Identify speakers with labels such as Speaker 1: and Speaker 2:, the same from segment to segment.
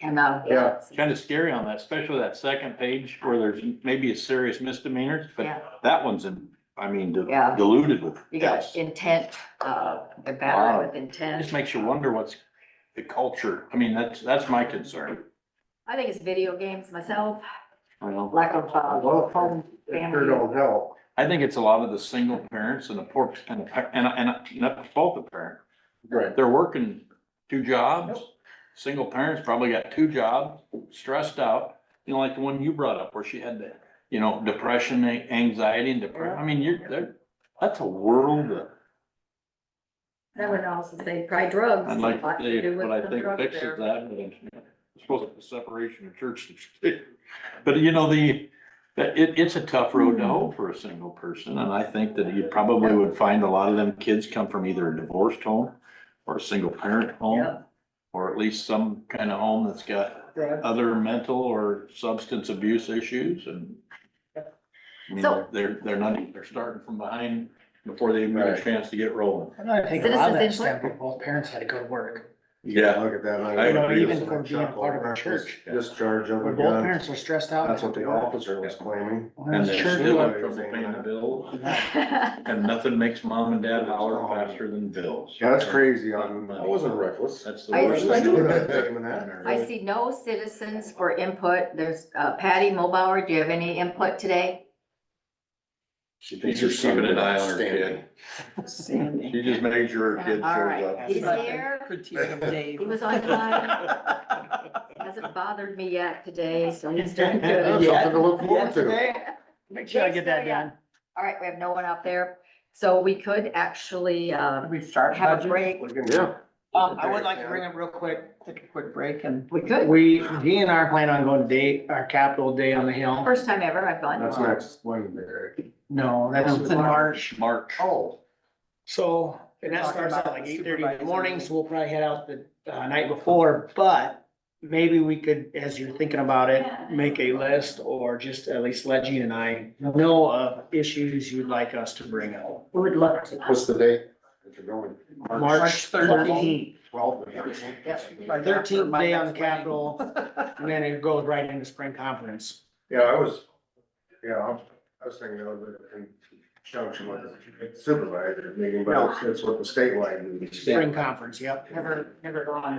Speaker 1: And, uh,
Speaker 2: Yeah.
Speaker 3: Kind of scary on that, especially that second page where there's maybe a serious misdemeanor,
Speaker 1: Yeah.
Speaker 3: but that one's in, I mean, di-
Speaker 1: Yeah.
Speaker 3: diluted with.
Speaker 1: you got
Speaker 3: deaths.
Speaker 1: intent, uh,
Speaker 3: Wow.
Speaker 1: battery with
Speaker 3: It
Speaker 1: intent.
Speaker 3: just makes you wonder what's the culture. I mean, that's, that's my concern.
Speaker 1: I think it's video games myself,
Speaker 3: you know?
Speaker 1: lack of, uh, home
Speaker 2: It sure
Speaker 1: family.
Speaker 2: don't help.
Speaker 3: I think it's a lot of the single parents and the poor, and, the par- and, and not both the parent.
Speaker 2: Right.
Speaker 3: They're working two jobs. Single parents probably got two jobs, stressed out, you know, like the one you brought up where she had the, you know, depression, a- anxiety and depression. I mean, you're, they're- that's a world of
Speaker 4: That would also say try drugs.
Speaker 3: I'd like to
Speaker 4: Lots
Speaker 3: say,
Speaker 4: do with
Speaker 3: but I
Speaker 4: the
Speaker 3: think
Speaker 4: drug
Speaker 3: fixes
Speaker 4: there.
Speaker 3: that, but it's supposed to be separation of church and state. But you know, the, that- it, it's a tough road
Speaker 4: Hmm.
Speaker 3: to hoe for a single person, and I think that you probably would find a lot of them kids come from either a divorced home or a single parent
Speaker 4: Yeah.
Speaker 3: home, or at least some kind of home that's got other mental or substance abuse issues and I mean,
Speaker 1: So-
Speaker 3: they're, they're not, they're starting from behind before they even get a
Speaker 2: Right.
Speaker 3: chance to get rolling.
Speaker 5: And I think a lot of that
Speaker 1: Citizens
Speaker 5: stemmed from both parents had to go to work.
Speaker 3: Yeah.
Speaker 2: Look at that.
Speaker 3: I would
Speaker 5: You know,
Speaker 3: agree with
Speaker 5: even from being a part of a church.
Speaker 2: Discharge of a
Speaker 5: When both
Speaker 2: gun.
Speaker 5: parents are stressed out.
Speaker 2: That's what the officer was claiming.
Speaker 5: When
Speaker 3: And
Speaker 5: it's
Speaker 3: they're
Speaker 5: church,
Speaker 3: still
Speaker 2: what
Speaker 3: in trouble
Speaker 2: they're
Speaker 3: paying the
Speaker 2: saying.
Speaker 3: bill,
Speaker 1: Yeah.
Speaker 3: and nothing makes mom and dad holler faster than bills.
Speaker 2: Yeah, That's crazy on. I wasn't reckless.
Speaker 3: That's the
Speaker 1: I-
Speaker 3: worst.
Speaker 1: I
Speaker 3: thing.
Speaker 1: I see no citizens for input. There's uh, Patty Mulbauer, do you have any input today?
Speaker 2: She
Speaker 3: She's just keeping an eye on her kid.
Speaker 6: Sandy.
Speaker 3: She just made sure her kid
Speaker 1: All right,
Speaker 3: shows
Speaker 1: he's
Speaker 3: up.
Speaker 1: here.
Speaker 6: Critique of Dave.
Speaker 1: He was on time, hasn't bothered me yet today, so he's doing
Speaker 2: Yeah,
Speaker 1: good.
Speaker 2: something to look forward to.
Speaker 5: Make sure I get that done.
Speaker 1: All right, we have no one out there, so we could actually, uh,
Speaker 6: We start
Speaker 1: have a
Speaker 6: budget?
Speaker 1: break.
Speaker 2: Yeah.
Speaker 6: Um, I would like to bring up real quick, take a quick break and
Speaker 1: We could,
Speaker 5: We, he and I are planning on going to date, our Capitol Day on the Hill.
Speaker 1: first time ever, I've gone.
Speaker 2: That's next Wednesday. right?
Speaker 5: No, that's in March.
Speaker 3: March.
Speaker 2: Oh.
Speaker 5: So, and that
Speaker 6: Talking
Speaker 5: starts out
Speaker 6: about
Speaker 5: like
Speaker 6: the
Speaker 5: eight thirty in the
Speaker 6: supervisor
Speaker 5: morning,
Speaker 6: meeting.
Speaker 5: so we'll probably head out the uh, night before, but maybe we could, as you're thinking about it, make a list or just at least let Gene and I know of issues you'd like us to bring up.
Speaker 1: We would love to.
Speaker 2: What's the date? If you're going.
Speaker 5: March thirteenth,
Speaker 2: Twelve.
Speaker 6: By the-
Speaker 5: thirteenth day on the
Speaker 6: After my next
Speaker 5: Capitol, and then it goes right into spring conference.
Speaker 2: Yeah, I was, yeah, I was- I was thinking of it in conjunction with the supervisor meeting, but it's- it's with the statewide. meeting.
Speaker 5: Spring conference, yep.
Speaker 1: Never, never gone.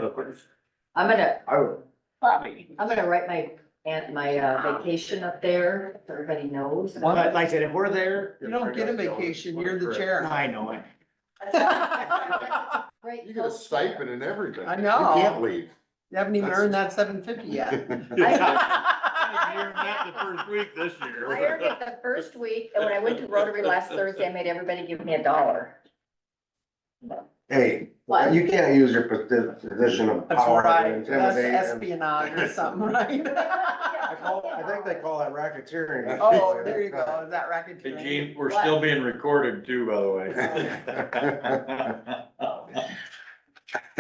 Speaker 1: I'm gonna,
Speaker 2: I would,
Speaker 5: Bobby.
Speaker 1: I'm gonna write my, and my uh, vacation up there, so everybody knows.
Speaker 5: But like I said, if we're there,
Speaker 6: You don't get a vacation, you're the chair.
Speaker 5: I know it.
Speaker 6: You
Speaker 1: Great.
Speaker 2: You get a
Speaker 1: coach.
Speaker 2: stipend and everything.
Speaker 6: I know.
Speaker 2: You can't leave.
Speaker 6: haven't even earned that seven fifty yet.
Speaker 3: week this year.
Speaker 1: I earned it the first week, and when I went to Rotary last Thursday, I made everybody give me a dollar.
Speaker 2: Hey,
Speaker 1: What?
Speaker 2: you can't use your posi- position of
Speaker 6: That's
Speaker 2: power to
Speaker 6: right, that's
Speaker 2: intimidate. and-
Speaker 6: espionage or something, right?
Speaker 2: I call, I think they call that racketeering.
Speaker 6: Oh, there you go, is that racket?
Speaker 3: Hey, Gene, we're still being recorded too, by the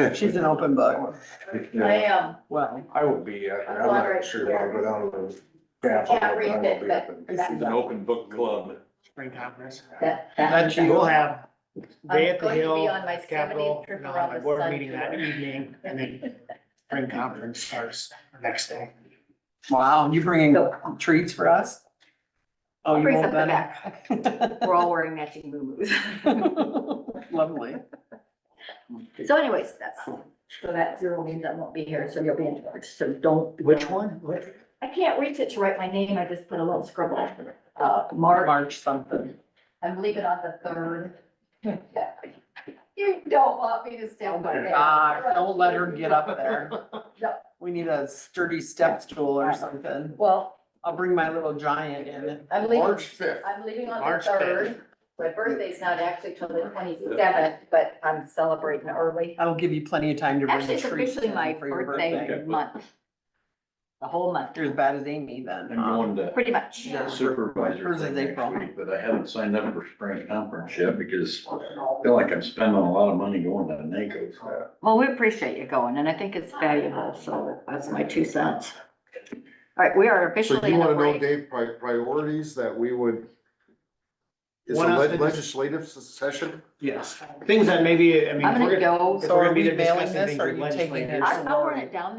Speaker 3: way.
Speaker 6: She's an open book,
Speaker 1: I um, am,
Speaker 6: well,
Speaker 2: I will be, uh, I'm not sure, if I'll go down to the.
Speaker 1: I can't read it, but-
Speaker 6: I see
Speaker 3: It's an
Speaker 6: that.
Speaker 3: open book club.
Speaker 5: Spring conference.
Speaker 1: that, that,
Speaker 6: That's
Speaker 5: And
Speaker 6: you,
Speaker 5: We'll have day at the
Speaker 1: I'm going to be
Speaker 5: hill,
Speaker 1: on my
Speaker 5: at the Capitol,
Speaker 1: 70th trip
Speaker 5: and I'll have a
Speaker 1: around the
Speaker 5: board
Speaker 1: sun
Speaker 5: meeting that
Speaker 1: tour.
Speaker 5: evening, and then spring conference starts the next day.
Speaker 6: wow, you bringing treats for us? Oh, you
Speaker 1: Bring
Speaker 6: want
Speaker 1: something
Speaker 6: that?
Speaker 1: we're all wearing matching boo-boos.
Speaker 6: Lovely.
Speaker 1: So anyways, that's, so that zero means I won't be here, so you'll be in charge, so don't. be-
Speaker 5: one?
Speaker 1: I can't reach it to write my name, I just put a little scribble, uh, Mark,
Speaker 6: March something.
Speaker 1: I'm leaving on the third. You don't want me to stand by there.
Speaker 6: Ah, don't let her get up there.
Speaker 1: No.
Speaker 6: We need a sturdy step stool or something.
Speaker 1: Well,
Speaker 6: I'll bring my little giant in.
Speaker 1: I'm leaving,
Speaker 2: March fifth.
Speaker 1: I'm leaving on the
Speaker 5: March
Speaker 1: third, my birthday's not actually till the twenty-seventh, but I'm celebrating early.
Speaker 6: I'll give you plenty of time to bring
Speaker 1: Actually,
Speaker 6: the
Speaker 1: it's
Speaker 6: treats
Speaker 1: officially
Speaker 6: in
Speaker 1: my
Speaker 6: for your birthday.
Speaker 1: birthday month. The whole month,
Speaker 6: You're as bad as Amy then.
Speaker 3: I'm going to
Speaker 1: pretty much.
Speaker 3: supervisor
Speaker 6: Hers
Speaker 3: thing
Speaker 6: is
Speaker 3: next
Speaker 6: April.
Speaker 3: week, but I haven't signed up for spring conference yet because I feel like I'm spending a lot of money going to NACO.
Speaker 1: Well, we appreciate you going, and I think it's valuable, so that's my two cents. All right, we are
Speaker 2: So
Speaker 1: officially
Speaker 2: you
Speaker 1: in a
Speaker 2: wanna know,
Speaker 1: break.
Speaker 2: Dave, pri- priorities that we would. Is
Speaker 5: One
Speaker 2: a
Speaker 5: of
Speaker 2: leg-
Speaker 5: the-
Speaker 2: legislative session?
Speaker 5: Yes, things that maybe, I mean.
Speaker 1: I'm
Speaker 5: we're
Speaker 1: gonna go.
Speaker 5: if
Speaker 6: So
Speaker 5: we're
Speaker 6: are
Speaker 5: gonna be
Speaker 6: we
Speaker 5: there discussing
Speaker 6: mailing this
Speaker 5: things
Speaker 6: or are
Speaker 5: with
Speaker 6: you taking it?
Speaker 5: legislators.
Speaker 1: I'm lowering it down